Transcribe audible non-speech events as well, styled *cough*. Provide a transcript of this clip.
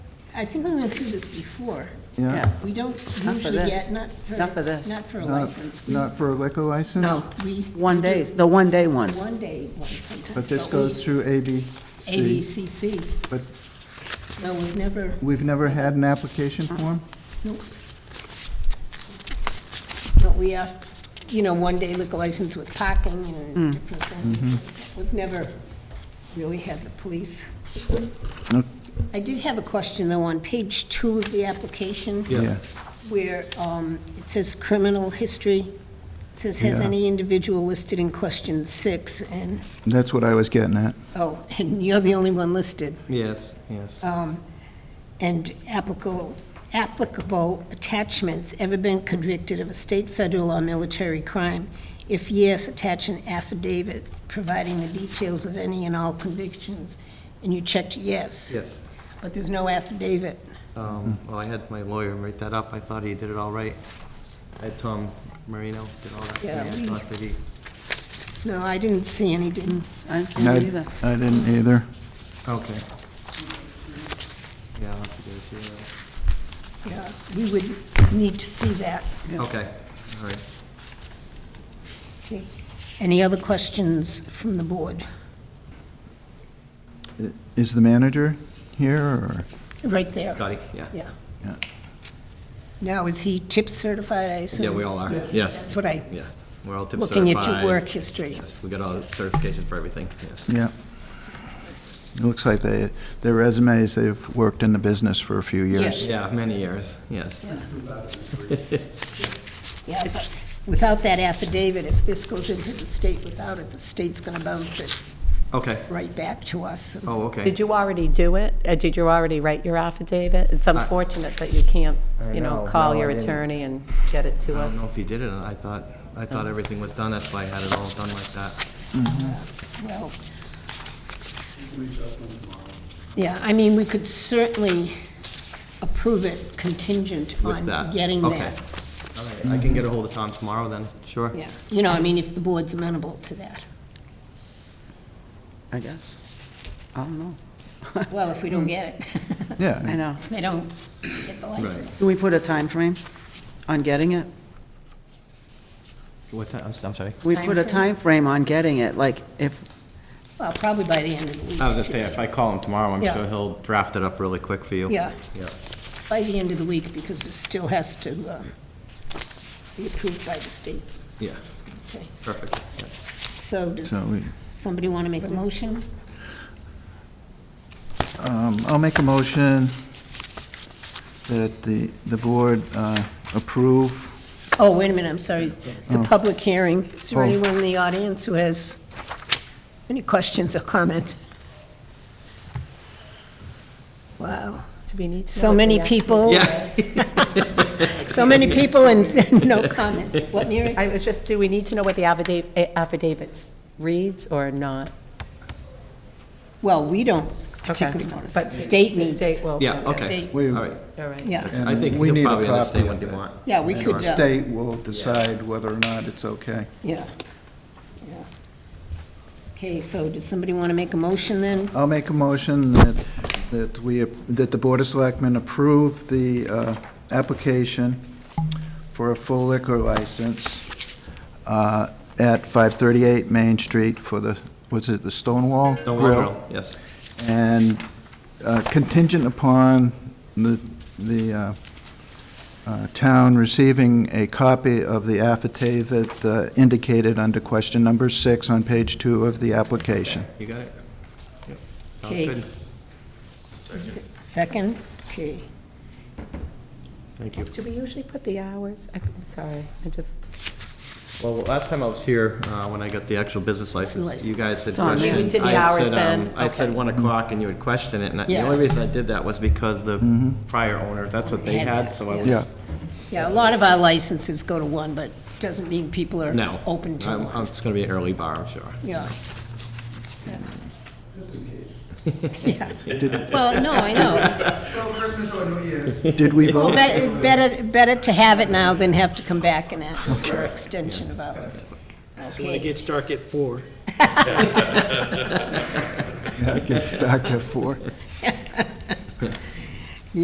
I think we went through this before. Yeah? We don't for usually this. get, not for. Not for this. Not for a Not- license. We- Not for a liquor license? No, We. one we day, do the one-day ones. One day, one sometimes. But this we- goes through ABC. ABCC, But no, we've never, we've never had an application Uh-huh. form? nope. No, we have, you know, one day liquor license with parking Hmm. and different Mm-hmm. things. We've never really had the police. No. I did have a question, though, on page two of the application. Yeah. where um, it says criminal history. It says, has Yeah. any individual listed in question six, and, That's what I was getting at. oh, *laughs* and you're the only one listed, Yes, yes. Um, and applicable, applicable attachments, ever been convicted of a state, federal, or military crime? If yes, attach an affidavit providing the details of any and all convictions, and you checked yes. Yes. But there's no affidavit. Um, Well, I had my lawyer write that up. I thought he did it all right. I had Tom Marino did all that. for me. Yeah, we- I thought that he No, I didn't see any, didn't I didn't see No, it either. I didn't either. Okay. Yeah, I'll have to go through Yeah, we would need to see that. that. Okay, all right. Any other questions from the board? Is the manager here, or? Right there. Scotty, yeah. Yeah. Yeah. Now, is he tip certified, I assume? Yeah, we all are, That's yes. what I, Yeah, we're all tip certified. looking at your work history. Yes, we got all the certifications for everything, yes. Yeah. It looks like they, their resumes, they've worked in the business for a few years. Yeah, many years, yes. Yeah, but without that affidavit, if this goes into the state without it, the state's going to bounce it Okay, right back to us. oh, okay. Did you already do it? Uh, Did you already write your affidavit? It's unfortunate that you can't, I you know, know. call No, I your didn't. attorney and get it to I don't us. know if he did it, or not. I thought, I thought everything was done, that's why I had it all done like that. Well. Yeah, I mean, we could certainly approve it contingent with on that. getting Okay. that. All right, I can get a hold of Tom tomorrow then, sure. Yeah, you know, I mean, if the board's amenable to that. I guess. I don't know. Well, if we don't get it, *laughs* I Yeah, know. they don't get the license. Can we put a time frame on getting it? What's that, I'm s- I'm sorry. We put a time frame on getting it, like, if, Well, probably by the end of the week. I was gonna say, if I call him tomorrow, I'm Yeah. sure he'll draft it up really quick for you. Yeah, Yeah. by the end of the week, because it still has to um, be approved by the state. Yeah, Okay. perfect. Yeah. So So does somebody want to make a motion? um, I'll make a motion that the, the board uh, approve Oh, wait a minute, I'm sorry. It's a Oh. public hearing. Is there Oh. anyone in the audience who has any questions or comments? Wow, Do we need to know so what many the act- people, Yeah, so many people and *laughs* no comments. What, Mary? I was just, do we need to know what the affidavit, eh, affidavit reads or not? Well, we don't Okay. particularly notice. But state the needs. State will. yeah, okay, State. all We- right. All right. Yeah, I think We need he'll a probably understand copy what of you it. want. yeah, we The could, uh, state will decide whether or not it's okay. yeah. yeah. Okay, so does somebody want to make a motion then? I'll make a motion that, that we, that the Board of Selectmen approve the uh, application for a full liquor license uh, at 538 Main Street for the, was it the Stonewall Don't Grill? worry, Earl. yes. And uh, contingent upon the, the uh, uh, town receiving a copy of the affidavit uh, indicated under question number six on page two of the application. You got it? Yep. Sounds Okay. good. S- Second? Okay. Thank you. Do we usually put the hours? I- I'm sorry, I just, Well, last time I was here, uh, when I got the actual business license, you license. guys had Tom, you questioned. did the I had hours said, um, then? I said Okay. one o'clock and you would question it, and I- the Yeah. only reason I did that was because the prior owner, that's what they Had had, that, so I yeah. was. Yeah. Yeah, a lot of our licenses go to one, but doesn't mean people are No. open to I'm- one. I'm- It's gonna be an early bar, I'm sure. *laughs* Yeah. Yeah. Well, no, I know. Did we Well, vote? better- Better, better to have it now than have to come back and ask for extension of hours. When it Okay, gets dark at four. I can start at four.